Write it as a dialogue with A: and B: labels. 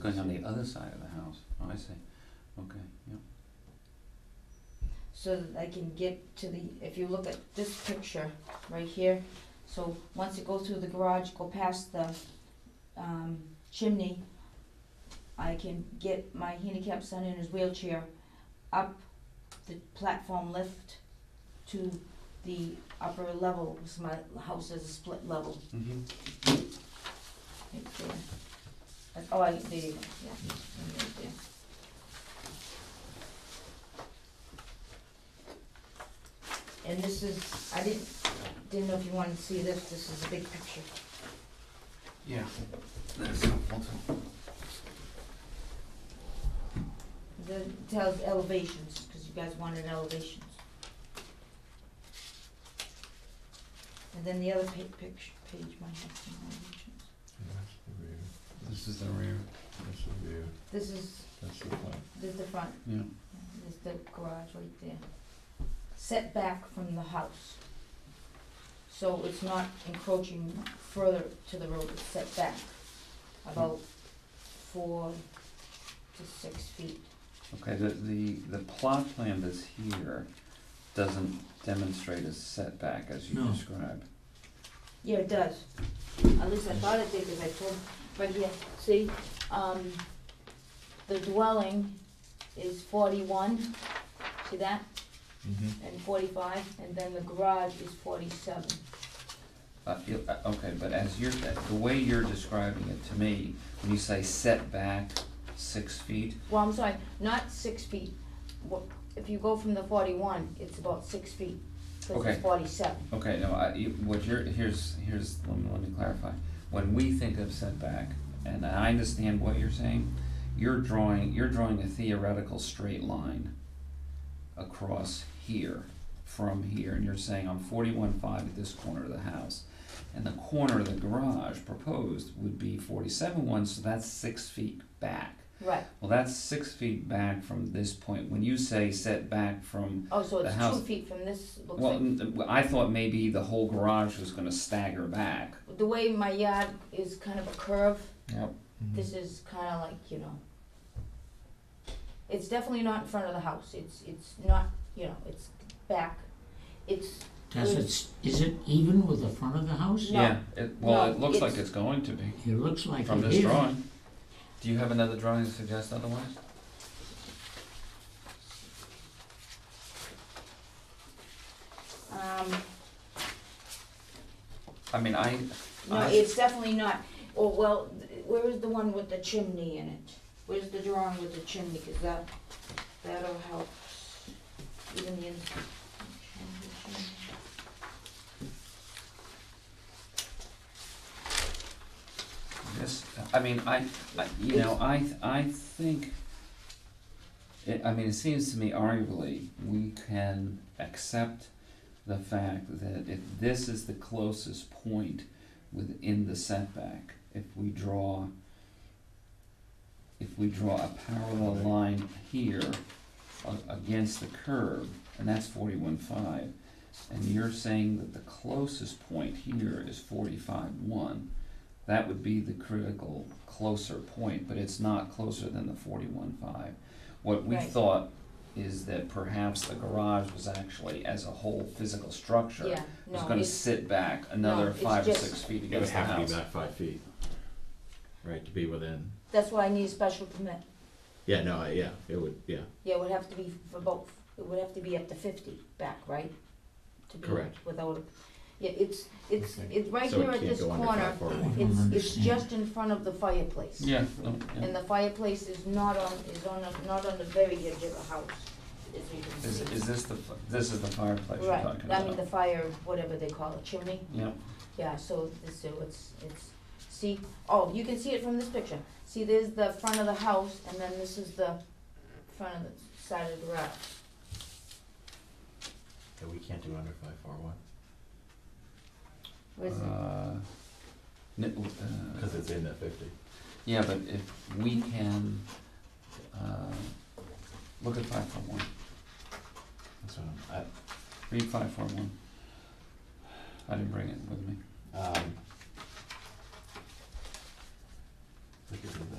A: going on the other side of the house, oh, I see, okay, yeah.
B: so that I can get to the, if you look at this picture right here, so once you go through the garage, go past the, um, chimney, I can get my handicapped son in his wheelchair up the platform lift to the upper level, 'cause my house is a split level,
A: Mm-hmm.
B: right there. That's- Oh, I, there you go, yeah, right there. And this is, I didn't, didn't know if you wanted to see this, this is a big picture.
A: Yeah, that's helpful too.
B: The, tells elevations, cause you guys wanted elevations. And then the other pa- picture, page might have some elevations.
C: That's the rear,
A: This is the rear,
C: that's the rear,
B: This is,
C: that's the front.
B: this is the front,
A: yeah,
B: There's the garage right there. Setback from the house. So it's not encroaching further to the road, it's set back about four to six feet.
A: okay, the, the, the plot plan that's here doesn't demonstrate a setback as you
C: No.
A: describe.
B: Yeah, it does. At least I thought it did, cause I told, right here, see, um, the dwelling is forty-one, see that?
C: Mm-hmm.
B: And forty-five, and then the garage is forty-seven.
A: Uh, you- uh, okay, but as you're, the way you're describing it to me, when you say setback six feet,
B: Well, I'm sorry, not six feet. Wha- If you go from the forty-one, it's about six feet, because
A: Okay.
B: it's forty-seven.
A: Okay, no, I, you- what you're, here's, here's, let me, let me clarify. When we think of setback, and I understand what you're saying, you're drawing, you're drawing a theoretical straight line across here, from here, and you're saying I'm forty-one five at this corner of the house. And the corner of the garage proposed would be forty-seven one, so that's six feet back.
B: Right,
A: Well, that's six feet back from this point. When you say setback from
B: oh, so
A: The
B: it's two
A: house-
B: feet from this, looks
A: well,
B: like.
A: n- I thought maybe the whole garage was gonna stagger back.
B: The way my yard is kind of a curve,
A: Yep.
B: this is kinda like, you know. It's definitely not in front of the house, it's, it's not, you know, it's back, it's,
D: Does it, is it even with the front of the house?
B: No.
A: Yeah, it, well,
B: No,
A: it looks like
B: it's-
A: it's going to be,
D: It looks like it is.
A: from this drawing. Do you have another drawing to suggest otherwise?
B: um,
A: I mean, I,
B: no,
A: I-
B: it's definitely not. Oh, well, th- where is the one with the chimney in it? Where's the drawing with the chimney, cause that, that'll help even the ins-
A: this, I mean, I, I, you know, I, th- I think, it, I mean, it seems to me arguably, we can accept the fact that if this is the closest point within the setback, if we draw, if we draw a parallel line here a- against the curb, and that's forty-one five, and you're saying that the closest point here is forty-five one, that would be the critical closer point, but it's not closer than the forty-one five. What we
B: Right.
A: thought is that perhaps the garage was actually, as a whole physical structure,
B: Yeah,
A: was
B: no,
A: gonna
B: it's,
A: sit back another
B: it's
A: five or
B: just-
A: six feet
C: It would
A: against the
C: have to
A: house.
C: be back five feet, right, to be within,
B: that's why I need a special permit.
C: yeah, no, I- yeah, it would, yeah,
B: Yeah, it would have to be for both, it would have to be up to fifty back, right? To be
C: Correct.
B: Without, a- yeah, it's, it's,
C: Okay.
B: it's right
C: so
B: here
C: it
B: at
C: can't
B: this
C: go under five
B: corner,
C: four
D: I
C: one.
D: don't
B: it's, it's
D: understand.
B: just in front of the fireplace.
A: Yeah, no, yeah.
B: And the fireplace is not on, is on, a- not on the very edge of the house, as you can
A: Is,
B: see.
A: is this the, f- this is the fireplace you're
B: Right,
A: talking
B: I
A: about?
B: mean, the fire, whatever they call it, chimney,
A: Yeah,
B: yeah, so this, so it's, it's, see, oh, you can see it from this picture. See, there's the front of the house, and then this is the front of the side of the garage.
C: Yeah, we can't do under five four one,
B: Where's it?
A: uh, n- uh,
C: cause it's in that fifty.
A: yeah, but if we can, uh, look at five four one,
C: That's what I'm,
A: read five four one. I didn't bring it with me.
C: I, um. Look at the